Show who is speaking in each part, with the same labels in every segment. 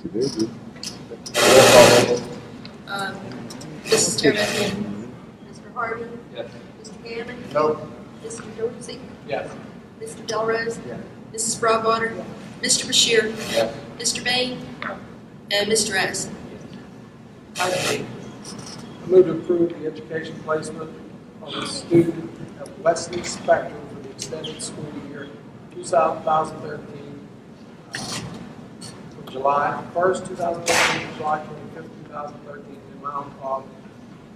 Speaker 1: Today, dude.
Speaker 2: Um, Mrs. Terman. Mr. Harmon. Mr. Gammon.
Speaker 3: No.
Speaker 2: Mr. Dorsey.
Speaker 3: Yes.
Speaker 2: Mr. Delrose.
Speaker 3: Yeah.
Speaker 2: Mrs. Broadwater. Mr. Bashir.
Speaker 3: Yeah.
Speaker 2: Mr. Bain. And Mr. Addison.
Speaker 3: Item eight, I move to approve the education placement of a student at Wesley Spectrum for the extended school year 2013, uh, from July 1st, 2013, to July 25th, 2013, in the amount of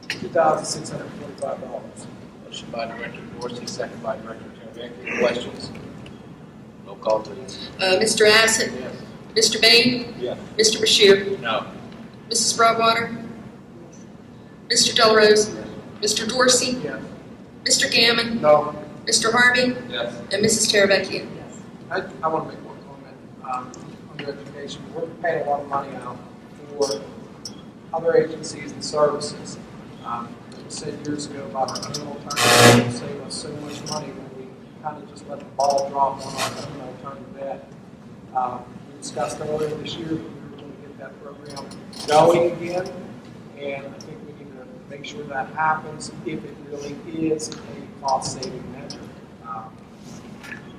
Speaker 3: $2,645.
Speaker 4: Motion by Director Dorsey, second by Director Teravicki. Questions? Roll call, please.
Speaker 2: Uh, Mr. Addison.
Speaker 4: Yes.
Speaker 2: Mr. Bain.
Speaker 4: Yes.
Speaker 2: Mr. Bashir.
Speaker 4: No.
Speaker 2: Mrs. Broadwater. Mr. Delrose. Mr. Dorsey.
Speaker 3: Yes.
Speaker 2: Mr. Gammon.
Speaker 3: No.
Speaker 2: Mr. Harvey.
Speaker 4: Yes.
Speaker 2: And Mrs. Teravecchia.
Speaker 3: I, I want to make one comment, um, on your education, we're paying a lot of money out for other agencies and services. Um, like you said years ago about our own alternative, it would save us so much money when we kind of just let the ball drop on our own alternative debt. Um, we discussed earlier this year, that we were going to get that program going again, and I think we need to make sure that happens if it really is a cost-saving measure. Um,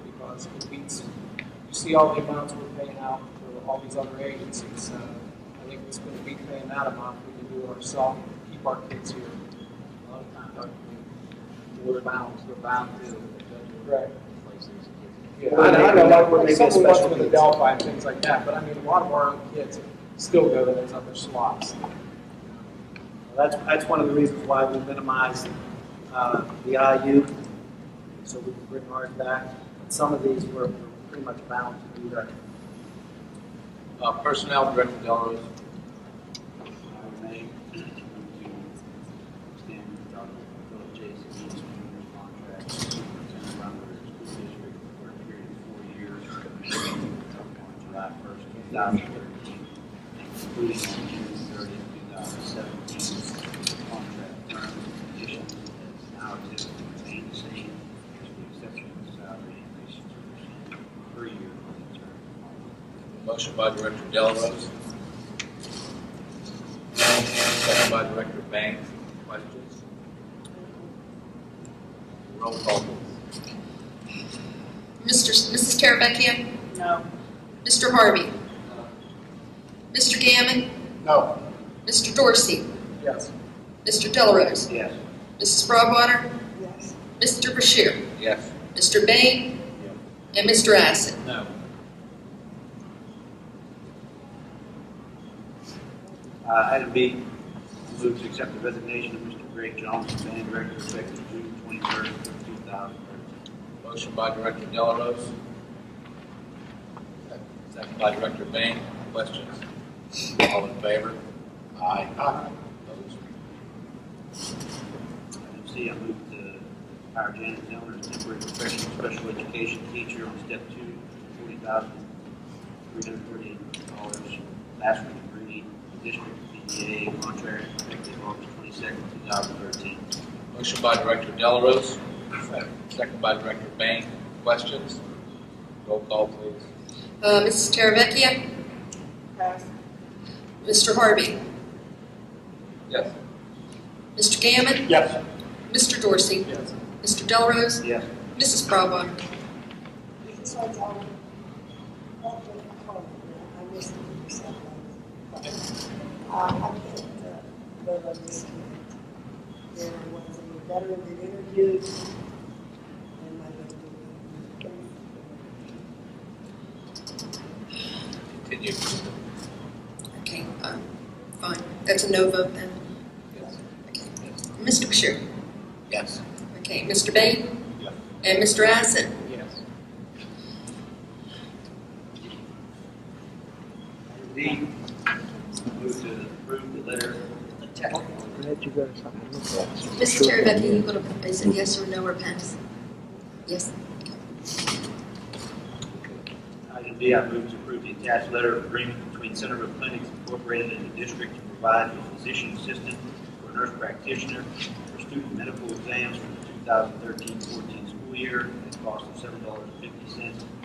Speaker 3: because it beats, you see all the amounts we're paying out for all these other agencies, so I think it's gonna be paying that amount, we can do it ourselves, and keep our kids here. A lot of times, our community, we're bound, we're bound to. Right. Yeah, I know, I know, like,
Speaker 5: Or
Speaker 3: like
Speaker 5: maybe a
Speaker 3: some of us
Speaker 5: special
Speaker 3: with the
Speaker 5: needs.
Speaker 3: Delphi and things like that, but I mean, a lot of our own kids still go to those other slots.
Speaker 5: That's, that's one of the reasons why we minimized uh, the IU, so we can bring ours back. Some of these were were pretty much bound to do that.
Speaker 4: Uh, Personnel Director Delarose.
Speaker 6: Remain to extend Philip J. Skeet's junior contract to run the school district for a period of four years on July first, two thousand thirteen, including on June thirtieth, two thousand seventeen. Contract terms and conditions as now exist remain the same, with the exception of salary increases per year on the term.
Speaker 4: Motion by Director Delarose. Second by Director Banks. Questions? Roll call, please.
Speaker 2: Mr. S- Mrs. Teravecchia.
Speaker 5: No.
Speaker 2: Mr. Harvey. Mr. Gammon.
Speaker 3: No.
Speaker 2: Mr. Dorsey.
Speaker 3: Yes.
Speaker 2: Mr. Delrose.
Speaker 6: Yes.
Speaker 2: Mrs. Broadwater. Mr. Bashir.
Speaker 4: Yes.
Speaker 2: Mr. Bain. And Mr. Assett.
Speaker 4: No.
Speaker 6: Uh, Item B, move to accept the resignation of Mr. Greg Johnson, band director, effective June twenty-third, two thousand thirteen.
Speaker 4: Motion by Director Delarose. Second by Director Bain. Questions? All in favor? Aye. Aye. Opposed?
Speaker 6: Item C, I move to hire Janet Dillon as temporary professional special education teacher on step two, forty thousand three hundred forty-eight dollars, bachelor's degree, district BDA contract, effective August twenty-second, two thousand thirteen.
Speaker 4: Motion by Director Delarose. Second by Director Bain. Questions? Roll call, please.
Speaker 2: Uh, Mrs. Teravecchia. Mr. Harvey.
Speaker 4: Yes.
Speaker 2: Mr. Gammon.
Speaker 3: Yes.
Speaker 2: Mr. Dorsey.
Speaker 3: Yes.
Speaker 2: Mr. Delrose.
Speaker 6: Yes.
Speaker 2: Mrs. Broadwater.
Speaker 7: Uh, There was a veteran that interviewed, and my husband.
Speaker 4: Continue.
Speaker 2: Okay, um, fine. That's a no vote then. Okay. Mr. Bashir.
Speaker 4: Yes.
Speaker 2: Okay, Mr. Bain.
Speaker 4: Yes.
Speaker 2: And Mr. Assett.
Speaker 3: Yes.
Speaker 6: Item D, move to approve the letter
Speaker 2: Mrs. Teravicki, you going to, is it yes or no or pass? Yes.
Speaker 6: Item D, I move to approve the attached letter of agreement between Center of Clinics Incorporated and the district to provide a physician assistant or nurse practitioner for student medical exams for the 2013-14 school year at a cost of $7.50